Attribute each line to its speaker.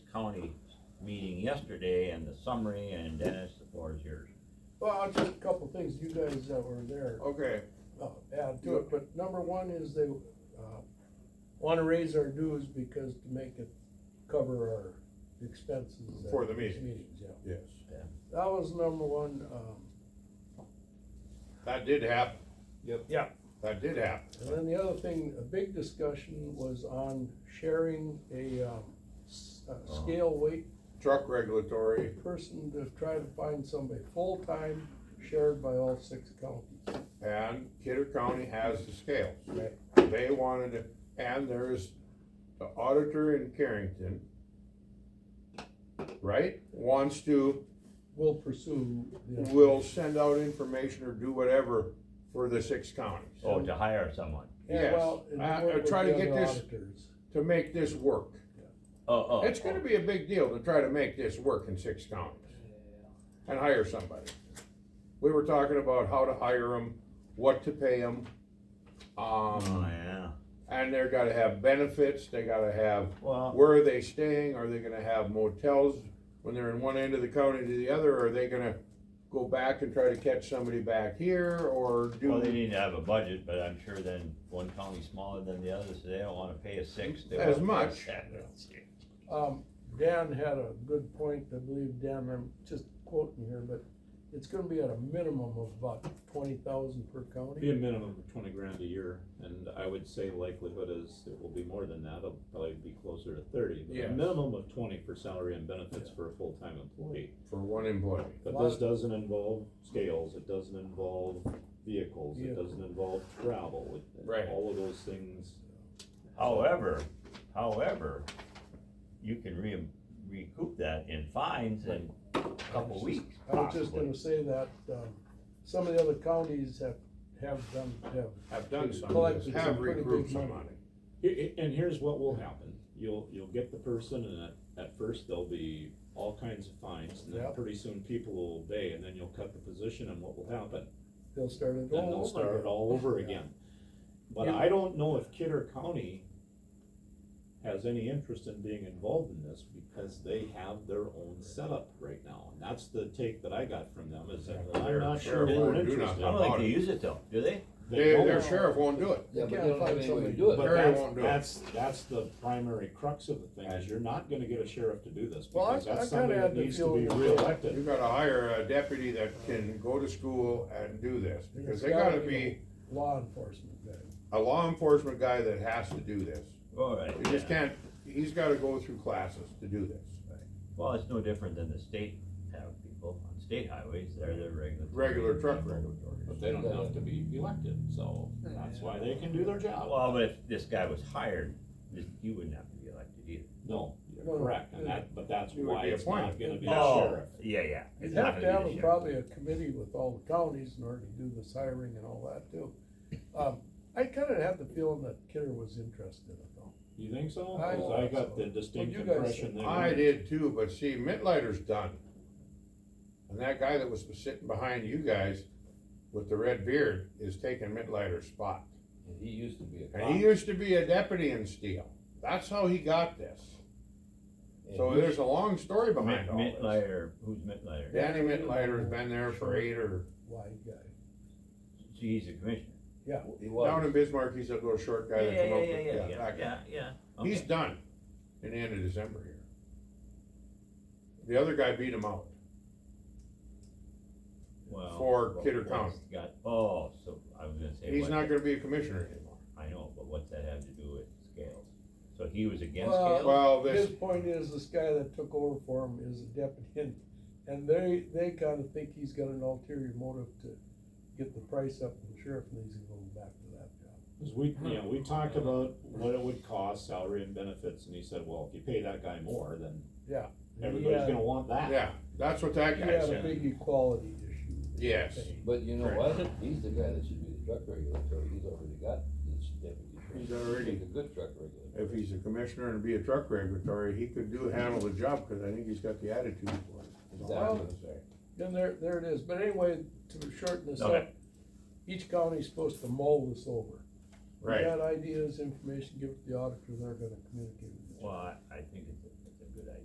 Speaker 1: meeting yesterday and the summary, and Dennis, the floor is yours.
Speaker 2: Well, just a couple things, you guys that were there,
Speaker 3: Okay,
Speaker 2: uh, add to it, but number one is they, uh, wanna raise our dues because to make it cover our expenses. at
Speaker 3: For the
Speaker 2: these
Speaker 3: meetings.
Speaker 2: Meetings, yeah.
Speaker 3: yes,
Speaker 2: That was number one, um,
Speaker 3: that did happen,
Speaker 2: yeah,
Speaker 3: that did happen.
Speaker 2: and then the other thing, a big discussion was on sharing a, um, s- a
Speaker 3: Uh-huh.
Speaker 2: scale weight
Speaker 3: Truck regulatory,
Speaker 2: person to try to find somebody full-time shared by all six counties.
Speaker 3: and Kidder County has the scales.
Speaker 2: Right.
Speaker 3: They wanted, to- and there is the auditor in Carrington, right, wants to,
Speaker 2: We'll pursue. the-
Speaker 3: will send out information or do whatever for the six counties,
Speaker 1: Oh, to hire someone.
Speaker 2: Yeah,
Speaker 3: Yes.
Speaker 2: well, and
Speaker 3: I- I
Speaker 2: work with
Speaker 3: try to
Speaker 2: the
Speaker 3: get
Speaker 2: other
Speaker 3: this-
Speaker 2: auditors.
Speaker 3: to make this work.
Speaker 1: Oh, oh.
Speaker 3: It's gonna be a big deal to try to make this work in six counties and hire somebody. We were talking about how to hire them, what to pay them.
Speaker 1: Oh,
Speaker 3: Um,
Speaker 1: yeah.
Speaker 3: and they're gotta have benefits, they gotta have,
Speaker 1: Well,
Speaker 3: where are they staying? Are they gonna have motels when they're in one end of the county to the other? Are they gonna go back and try to catch somebody back here or
Speaker 1: well, they
Speaker 3: do?
Speaker 1: need to have a budget, but I'm sure then one county's smaller than the other, so they don't wanna pay a six. they
Speaker 3: As
Speaker 1: wanna pay a
Speaker 3: much.
Speaker 1: seven.
Speaker 2: Um, Dan had a good point, I believe, Dan, I'm just quoting here, but it's gonna be at a minimum of about twenty thousand per
Speaker 4: Be a
Speaker 2: county.
Speaker 4: minimum of twenty grand a year, and I would say likelihood is it will be more than that, it'll probably be closer to thirty. But a
Speaker 3: Yes.
Speaker 4: minimum of twenty for salary and benefits for a full-time employee.
Speaker 3: For one employee.
Speaker 4: But
Speaker 2: Lot-
Speaker 4: this doesn't involve scales, it doesn't involve vehicles, it
Speaker 2: Vehicle.
Speaker 4: doesn't involve travel, it-
Speaker 3: Right.
Speaker 4: all of those things.
Speaker 1: However, however, you can re- recoup that in fines in a couple weeks
Speaker 2: I was just
Speaker 1: possibly.
Speaker 2: gonna say that, um, some of the other counties have, have done, have,
Speaker 3: Have done some,
Speaker 2: Collected some
Speaker 3: have
Speaker 2: pretty big
Speaker 3: recruited some
Speaker 2: money.
Speaker 3: money.
Speaker 4: Here- And here's what will happen, you'll, you'll get the person, and at, at first there'll be all kinds of fines, and then
Speaker 2: Yep.
Speaker 4: pretty soon people will obey, and then you'll cut the position, and what will happen?
Speaker 2: they'll start it
Speaker 4: then
Speaker 2: all
Speaker 4: they'll
Speaker 2: over
Speaker 4: start it
Speaker 2: again.
Speaker 4: all over
Speaker 2: Yeah.
Speaker 4: again. But
Speaker 2: Yeah.
Speaker 4: I don't know if Kidder County has any interest in being involved in this because they have their own setup right now. And that's the take that I got from them is that
Speaker 3: They're-
Speaker 4: I'm not sure
Speaker 3: they're
Speaker 4: they're
Speaker 3: won't do
Speaker 1: I
Speaker 3: nothing.
Speaker 4: interested.
Speaker 1: don't think they use it though, do they?
Speaker 3: They-
Speaker 4: don't.
Speaker 3: Their sheriff won't do it.
Speaker 5: Yeah,
Speaker 2: You
Speaker 5: but they
Speaker 2: can't
Speaker 5: don't have
Speaker 2: find
Speaker 5: any
Speaker 2: somebody to
Speaker 5: way to
Speaker 2: do
Speaker 5: do
Speaker 2: it.
Speaker 5: it.
Speaker 4: But
Speaker 3: Perry
Speaker 4: that's,
Speaker 3: won't do it.
Speaker 4: that's, that's the primary crux of the thing is you're not gonna get a sheriff to do this
Speaker 2: Well, I-
Speaker 4: because
Speaker 2: I
Speaker 4: that's
Speaker 2: kinda
Speaker 4: somebody
Speaker 2: had
Speaker 4: that
Speaker 2: the
Speaker 4: needs to be
Speaker 2: feeling-
Speaker 3: You
Speaker 4: reelected.
Speaker 3: gotta hire a deputy that can go to school and do this, because they gotta be
Speaker 2: Law enforcement guy.
Speaker 3: a law enforcement guy that has to do this.
Speaker 1: All right.
Speaker 3: You just can't, he's gotta go through classes to do this,
Speaker 1: Well, it's no different than the state have people on state highways, they're their regular.
Speaker 3: regular truck
Speaker 4: But
Speaker 3: regulatory.
Speaker 4: they don't have to be elected, so that's why they can do their job.
Speaker 1: Well, but if this guy was hired, this- you wouldn't have to be elected either.
Speaker 4: No, you're
Speaker 2: No, no,
Speaker 4: correct, and
Speaker 2: yeah.
Speaker 4: that, but that's
Speaker 3: You would
Speaker 4: why
Speaker 3: be
Speaker 4: it's not
Speaker 3: appointed.
Speaker 4: gonna be a
Speaker 1: Oh,
Speaker 4: sheriff.
Speaker 1: yeah, yeah.
Speaker 2: You'd
Speaker 1: It's
Speaker 2: have
Speaker 1: not
Speaker 2: to
Speaker 1: gonna be
Speaker 2: have a-
Speaker 1: the sheriff.
Speaker 2: probably a committee with all the counties in order to do this hiring and all that too. Um, I kinda had the feeling that Kidder was interested in it though.
Speaker 4: You think so?
Speaker 2: I
Speaker 4: 'Cause
Speaker 2: think
Speaker 4: I got
Speaker 2: so.
Speaker 4: the distinct
Speaker 2: Well, you guys
Speaker 4: impression that.
Speaker 3: I did too, but see, Mitlighter's done. And that guy that was sitting behind you guys with the red beard is taking Mitlighter's spot.
Speaker 5: He used to be a cop.
Speaker 3: And he used to be a deputy in Steel, that's how he got this.
Speaker 5: and
Speaker 3: So
Speaker 5: he-
Speaker 3: there's a long story behind all
Speaker 1: Mint
Speaker 3: this.
Speaker 1: Lighter, who's Mint Lighter?
Speaker 3: Danny Mitlighter's been there for eight or
Speaker 2: Wide guy.
Speaker 1: He's a commissioner.
Speaker 5: He
Speaker 3: Down
Speaker 5: was,
Speaker 3: in Bismarck, he's a little short guy that come up with, yeah, that guy.
Speaker 1: yeah, yeah.
Speaker 3: He's
Speaker 1: Okay.
Speaker 3: done in the end of December here. The other guy beat him out.
Speaker 1: Well,
Speaker 3: for
Speaker 1: but
Speaker 3: Kidder
Speaker 1: what's
Speaker 3: County.
Speaker 1: Got, oh, so I was gonna say.
Speaker 3: He's
Speaker 1: what-
Speaker 3: not gonna be a commissioner anymore.
Speaker 1: I know, but what's that have to do with scales? So he was against
Speaker 2: Well,
Speaker 1: scales?
Speaker 3: Well,
Speaker 2: His
Speaker 3: this,
Speaker 2: point is, this guy that took over for him is a deputy, and, and they, they kinda think he's got an ulterior motive to get the price up, and the sheriff needs to go back to that job.
Speaker 4: 'Cause we, you know, we talked about what it would cost, salary and benefits, and he said, well, if you pay that guy more, then
Speaker 2: Yeah.
Speaker 4: everybody's gonna want that.
Speaker 3: yeah, that's what that
Speaker 2: He
Speaker 3: guy
Speaker 2: had a
Speaker 3: said.
Speaker 2: big equality issue.
Speaker 3: Yes.
Speaker 2: thing.
Speaker 5: but you know what, he's the guy that should be the truck regulatory, he's already got this deputy.
Speaker 3: He's already-
Speaker 5: He's a good truck regulator.
Speaker 3: If he's a commissioner and be a truck regulatory, he could do, handle the job, cause I think he's got the attitude for it. That's all I'm gonna say.
Speaker 2: Then there, there it is, but anyway, to shorten this
Speaker 1: Okay.
Speaker 2: up, each county's supposed to mull this over. We
Speaker 3: Right,
Speaker 2: Got ideas, information, give it to the auditor, they're gonna communicate with you.
Speaker 1: Well, I, I think